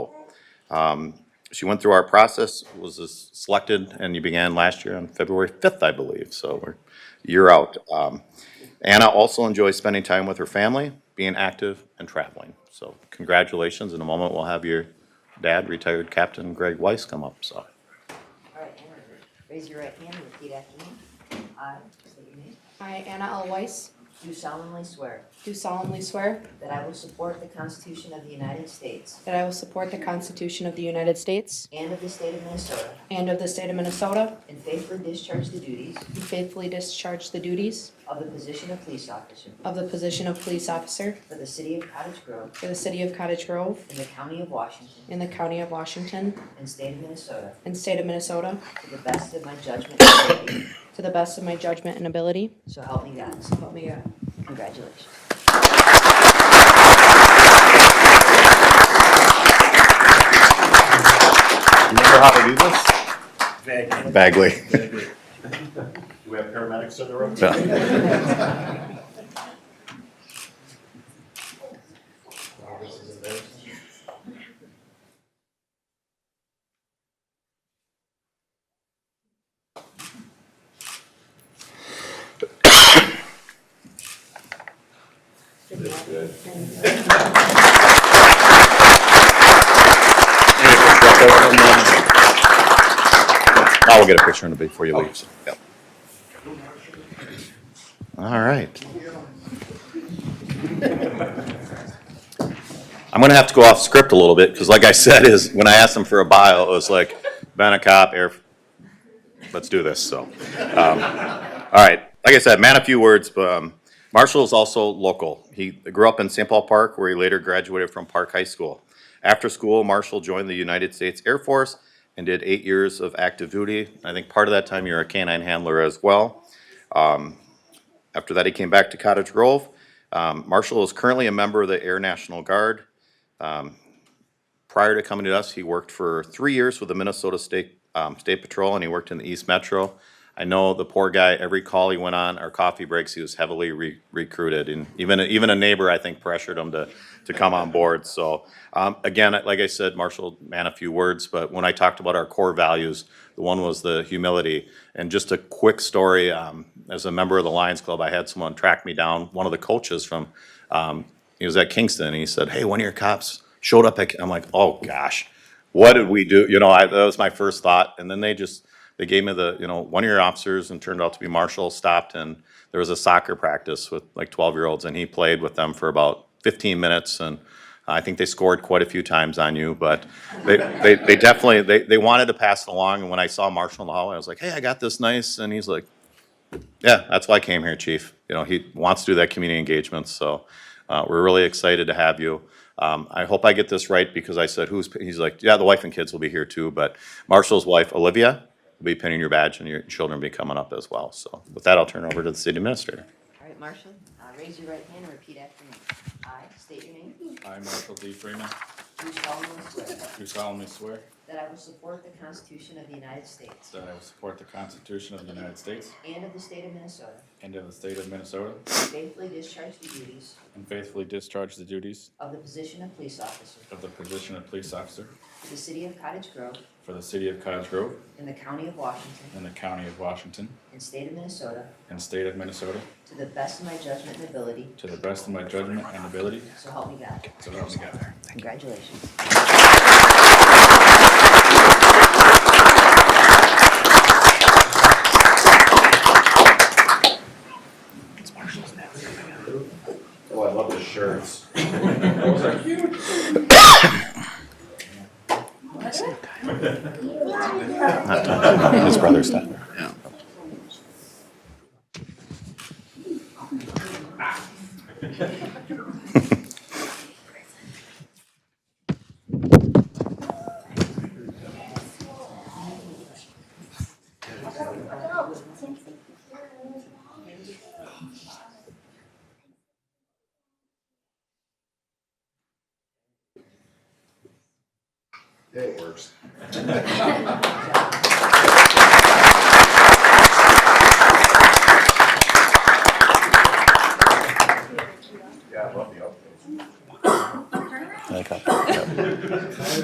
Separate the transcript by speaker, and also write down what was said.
Speaker 1: Um, She went through our process, was s- selected, and you began last year on February 5th, I believe, so we're a year out. Um, Anna also enjoys spending time with her family, being active, and traveling. So congratulations. In a moment, we'll have your dad, retired Captain Greg Weiss, come up, so.
Speaker 2: All right, Anna, raise your right hand and repeat after me. I, state your name,
Speaker 3: I, Anna L. Weiss,
Speaker 2: do solemnly swear
Speaker 3: do solemnly swear
Speaker 2: that I will support the Constitution of the United States
Speaker 3: that I will support the Constitution of the United States
Speaker 2: and of the state of Minnesota
Speaker 3: and of the state of Minnesota
Speaker 2: and faithfully discharge the duties
Speaker 3: and faithfully discharge the duties
Speaker 2: of the position of police officer
Speaker 3: of the position of police officer
Speaker 2: for the city of Cottage Grove
Speaker 3: for the city of Cottage Grove
Speaker 2: in the county of Washington
Speaker 3: in the county of Washington
Speaker 2: and state of Minnesota
Speaker 3: and state of Minnesota
Speaker 2: to the best of my judgment and ability.
Speaker 3: to the best of my judgment and ability.
Speaker 2: So help me God.
Speaker 3: So help me God.
Speaker 2: Congratulations.
Speaker 1: Remember how to do this? Bagley. Bagley.
Speaker 4: Do we have paramedics in the room?
Speaker 1: I will get a picture in a bit before you leave. so, yep. All right. I'm gonna have to go off script a little bit, because like I said, is, when I asked them for a bio, it was like, been a cop, air, let's do this, so. um, All right, like I said, man, a few words, but um, Marshall is also local. He grew up in St. Paul Park, where he later graduated from Park High School. After school, Marshall joined the United States Air Force and did eight years of active duty. I think part of that time you were a canine handler as well. Um, After that, he came back to Cottage Grove. Um, Marshall is currently a member of the Air National Guard. Um, Prior to coming to us, he worked for three years with the Minnesota State, um, State Patrol, and he worked in the East Metro. I know the poor guy, every call he went on, our coffee breaks, he was heavily re- recruited, and even, even a neighbor, I think, pressured him to, to come on board, so. Um, again, like I said, Marshall, man, a few words, but when I talked about our core values, the one was the humility. And just a quick story, um, as a member of the Lions Club, I had someone track me down, one of the coaches from, um, he was at Kingston, and he said, "Hey, one of your cops showed up." At, I'm like, "Oh gosh, what did we do?" You know, I, that was my first thought. And then they just they gave me the you know one of your officers, and turned out to be Marshall. Stopped, and there was a soccer practice with like 12 year olds, and he played with them for about 15 minutes, and I think they scored quite a few times on you, but they, they, they definitely they, they wanted to pass it along. And when I saw Marshall in the hallway, I was like, "Hey, I got this nice," and he's like, yeah, that's why I came here, Chief. You know, he wants to do that community engagement, so uh, we're really excited to have you. Um, I hope I get this right because I said who's, he's like, yeah, the wife and kids will be here too, but Marshall's wife, Olivia, will be pinning your badge and your children will be coming up as well. So with that, I'll turn it over to the city administrator.
Speaker 2: All right, Marshall, uh, raise your right hand and repeat after me. I state your name.
Speaker 5: I, Marshall D. Freeman,
Speaker 2: Do solemnly swear
Speaker 5: do solemnly swear
Speaker 2: that I will support the Constitution of the United States
Speaker 5: that I will support the Constitution of the United States
Speaker 2: and of the state of Minnesota,
Speaker 5: and of the state of Minnesota,
Speaker 2: and faithfully discharge the duties
Speaker 5: and faithfully discharge the duties
Speaker 2: of the position of police officer
Speaker 5: of the position of police officer
Speaker 2: for the city of Cottage Grove
Speaker 5: for the city of Cottage Grove
Speaker 2: in the county of Washington
Speaker 5: and the county of Washington
Speaker 2: and state of Minnesota
Speaker 5: and state of Minnesota
Speaker 2: to the best of my judgment and ability,
Speaker 5: to the best of my judgment and ability,
Speaker 2: so help me God.
Speaker 5: so help me God.
Speaker 2: Congratulations.
Speaker 4: Oh, I love the shirts.
Speaker 1: His brother's done.
Speaker 4: It works.
Speaker 2: Good job.